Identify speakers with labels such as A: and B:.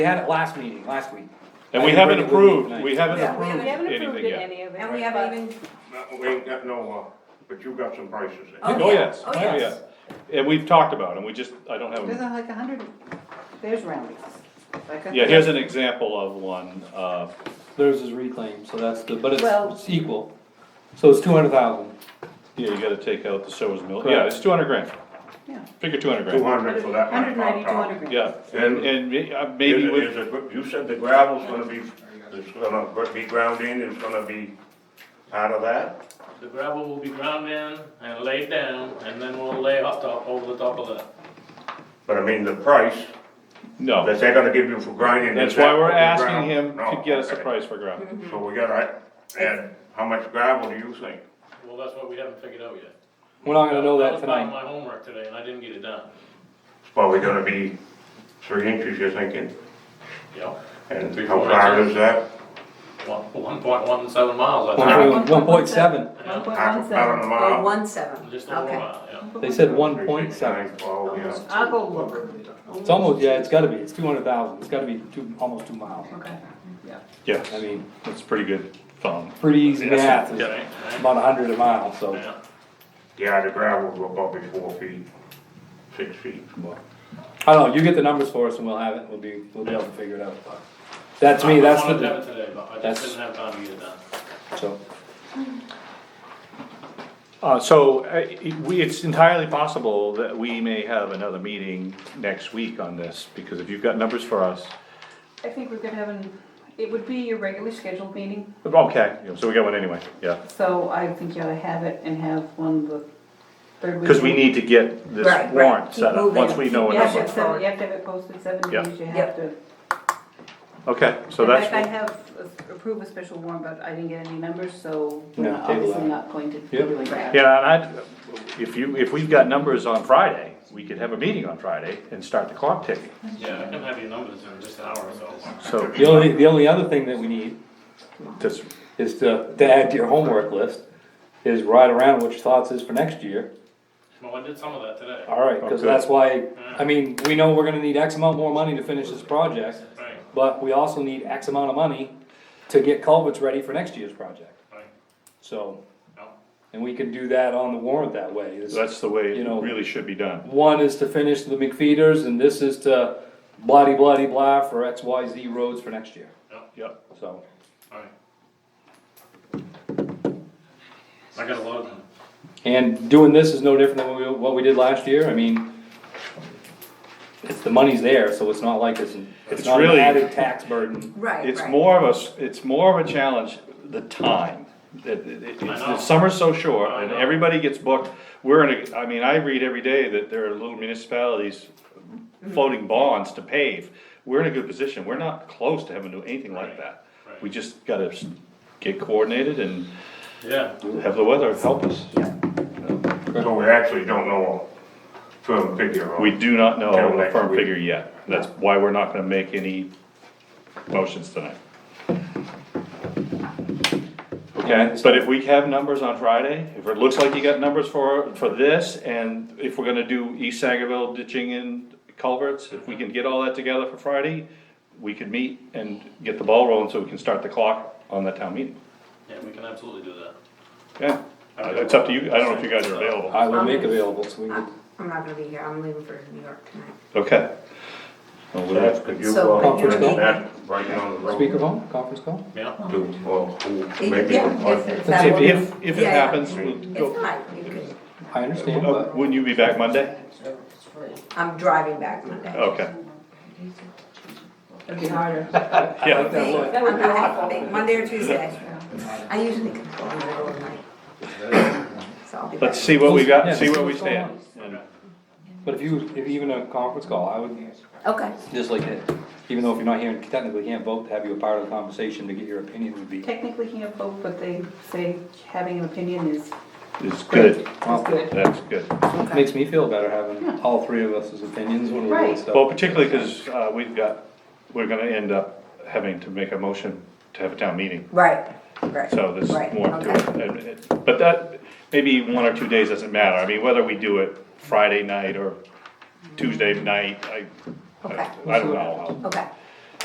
A: They had it last meeting, last week.
B: And
A: I
B: we
A: didn't
B: haven't
A: bring it with me
B: approved,
A: tonight.
B: we haven't
C: Yeah, we
B: approved
C: haven't-
D: We haven't approved
B: anything
D: it,
B: yet.
D: any of it.
C: And we
D: but-
C: haven't even,
E: No, we ain't got no, uh, but you got some prices in.
C: Oh,
B: Oh,
C: yeah.
B: yes,
C: Oh,
B: oh,
C: yes.
B: yeah. And we've talked about them, we just, I don't have
F: There's
B: them.
F: uh, like a hundred, there's roundings. Like a-
B: Yeah, here's an example of one, uh,
A: Theirs is reclaimed, so that's the, but it's,
F: Well-
A: it's equal. So it's two hundred thousand.
B: yeah, you gotta take out the Sowers Mill, yeah, it's two hundred grand,
F: Yeah.
B: figure two hundred
E: Two
B: grand.
E: hundred for that
F: Hundred
E: one
F: ninety,
E: on
F: two hundred
E: top.
F: grand.
B: Yeah, and, and uh, maybe
E: Is it-
B: with,
E: is it- You said the gravel's gonna be, it's gonna be ground in, it's gonna be part of that?
G: The gravel will be ground in and laid down, and then we'll lay off top, over the top of that.
E: But I mean, the price
B: no,
E: that they're gonna give you for grinding.
B: that's
E: is that
B: why we're
E: what the
B: asking
E: ground-
B: him to
E: No,
B: get us a
E: okay.
B: price for gravel.
E: So we gotta add, how much gravel do you think?
G: Well, that's what we haven't figured out yet.
A: We're not gonna know that
G: was part of
A: tonight.
G: my homework today, and I didn't get it done.
E: It's probably gonna be three inches, you're thinking,
G: Yeah,
E: and
G: Three,
E: how
G: four
E: far
G: inches.
E: is that?
G: one, one point one seven miles, I think.
A: One point- one point seven.
F: One point
E: Half
F: one
E: a pound
F: seven.
E: a
B: Uh,
C: oh,
E: mile.
C: one seven,
G: Just a little
C: okay.
G: while, yeah.
A: They said one point seven.
E: 369, Twelve, yeah.
C: I'll go look.
A: It's almost, yeah, it's gotta be, it's two hundred thousand, it's gotta be two, almost two miles.
C: Okay.
B: Yeah,
A: I mean,
B: that's pretty good phone.
A: pretty easy
B: Yes,
A: math,
B: yeah,
A: is
G: Right, right,
A: about a hundred a mile, so.
G: yeah.
E: Yeah, the gravel will probably four feet, six feet.
A: I don't know, you get the numbers for us and we'll have it, we'll be, we'll be able to figure it out. That to me, that's
G: I wanted to have
A: the,
G: it today, but I
A: that's-
G: just didn't have time to get it done.
A: so,
B: Uh, so, uh, it- we, it's entirely possible that we may have another meeting next week on this, because if you've got numbers for us,
F: I think we're gonna have an, it would be your regularly scheduled meeting,
B: okay, so we got one anyway, yeah.
F: so I think you ought to have it and have one the third week.
B: Because we need to get this
C: Right, right.
B: warrant
C: Keep
B: set up,
C: moving.
B: once we know a
F: You have to
B: number.
F: have seven, you have to have it posted seven
B: Yeah.
F: days, you have
C: Yep.
F: to.
B: Okay, so
F: In fact, I
B: that's,
F: have a- approved a special warrant, but I didn't get any numbers, so
A: No,
F: we're
A: table
F: obviously
A: that.
F: not going to
A: Yep.
F: really grab.
B: yeah, and I, if you, if we've got numbers on Friday, we could have a meeting on Friday and start the clock ticking.
G: Yeah, I can have your numbers in just an hour or so.
B: So,
A: the only, the only other thing that we need
B: that's,
A: is to, to add to your homework list, is write around what your thoughts is for next year.
G: Well, I did some of that today.
A: Alright, cause
B: Okay.
A: that's why, I mean, we know we're gonna need X amount more money to finish this project,
G: Right,
A: but we also need X amount of money to get culverts ready for next year's project,
G: right,
A: so.
G: no,
A: And we can do that on the warrant that way, is-
B: that's the way
A: You
B: it
A: know-
B: really should be done.
A: one is to finish the McFeeters and this is to bloody bloody blah for X, Y, Z roads for next year,
B: Yep,
A: so.
G: all right. I got a lot of them.
A: And doing this is no different than what we, what we did last year, I mean, it's, the money's there, so it's not like it's, it's
B: It's
A: not an
B: really-
A: added tax burden.
C: Right,
B: it's
C: right.
B: more of a, s- it's more of a challenge, the time. That- that- it's-
G: I know.
B: The summer's so short
G: I
B: and
G: know.
B: everybody gets booked, we're in a, I mean, I read every day that there are little municipalities
C: Mm-hmm.
B: floating bonds to pave. We're in a good position, we're not close to having to do anything like
G: Right,
B: that.
G: right.
B: We just gotta s- get coordinated and
G: Yeah,
B: have the weather help us.
E: So we actually don't know a firm figure on.
B: We do not know
E: Till
B: a
E: next
B: firm
E: week.
B: figure yet, that's why we're not gonna make any motions tonight. Okay, but if we have numbers on Friday, if it looks like you got numbers for, for this, and if we're gonna do East Sangerville ditching and culverts, if we can get all that together for Friday, we could meet and get the ball rolling so we can start the clock on that town meeting.
G: yeah, we can absolutely do that.
B: Yeah, Uh, it's up to you, I don't know if you guys are available.
A: I will make available, so we can,
C: I'm I'm not gonna be here, I'm leaving for New York tonight.
B: Okay. Well, we'll
E: That's, could you,
C: So-
E: uh,
A: Conference call?
E: mention that right now? on the road?
A: speakerphone, conference call?
G: Yeah,
E: To, uh, who
C: It-
E: maybe
C: yeah,
E: would like-
C: if- if that
B: If,
C: would-
B: if, if it
C: Yeah, yeah.
B: happens, we'll
C: It's
B: go.
C: fine, you could,
A: I understand,
B: Uh,
A: but
B: Wouldn't you be back Monday?
C: I'm driving back Monday.
B: Okay,
F: It'd be harder.
B: yeah,
A: that would-
C: I'm gonna have to think Monday or Tuesday. I usually can go in the middle of the night. So I'll be back.
B: let's see what we
A: Yeah,
B: got, see
A: let's
B: where we
A: see what's going
B: stand.
A: but if you, if even a conference call, I would,
C: Okay,
A: just like it, even though if you're not here and technically can't vote, to have you a part of the conversation to get your opinion would be.
F: Technically can't vote, but they say having an opinion is
B: It's
F: great,
B: good,
F: is good.
B: that's good.
C: okay.
A: Makes me feel better having all three of us as opinions when we're doing
F: Right.
A: stuff.
B: Well, particularly because, uh, we've got, we're gonna end up having to make a motion to have a town meeting.
C: Right, right.
B: So there's
C: right,
B: more to
C: okay.
B: it. And it. But that, maybe one or two days doesn't matter. I mean, whether we do it Friday night or Tuesday night, I, I
C: Okay.
B: I don't know.
C: Okay,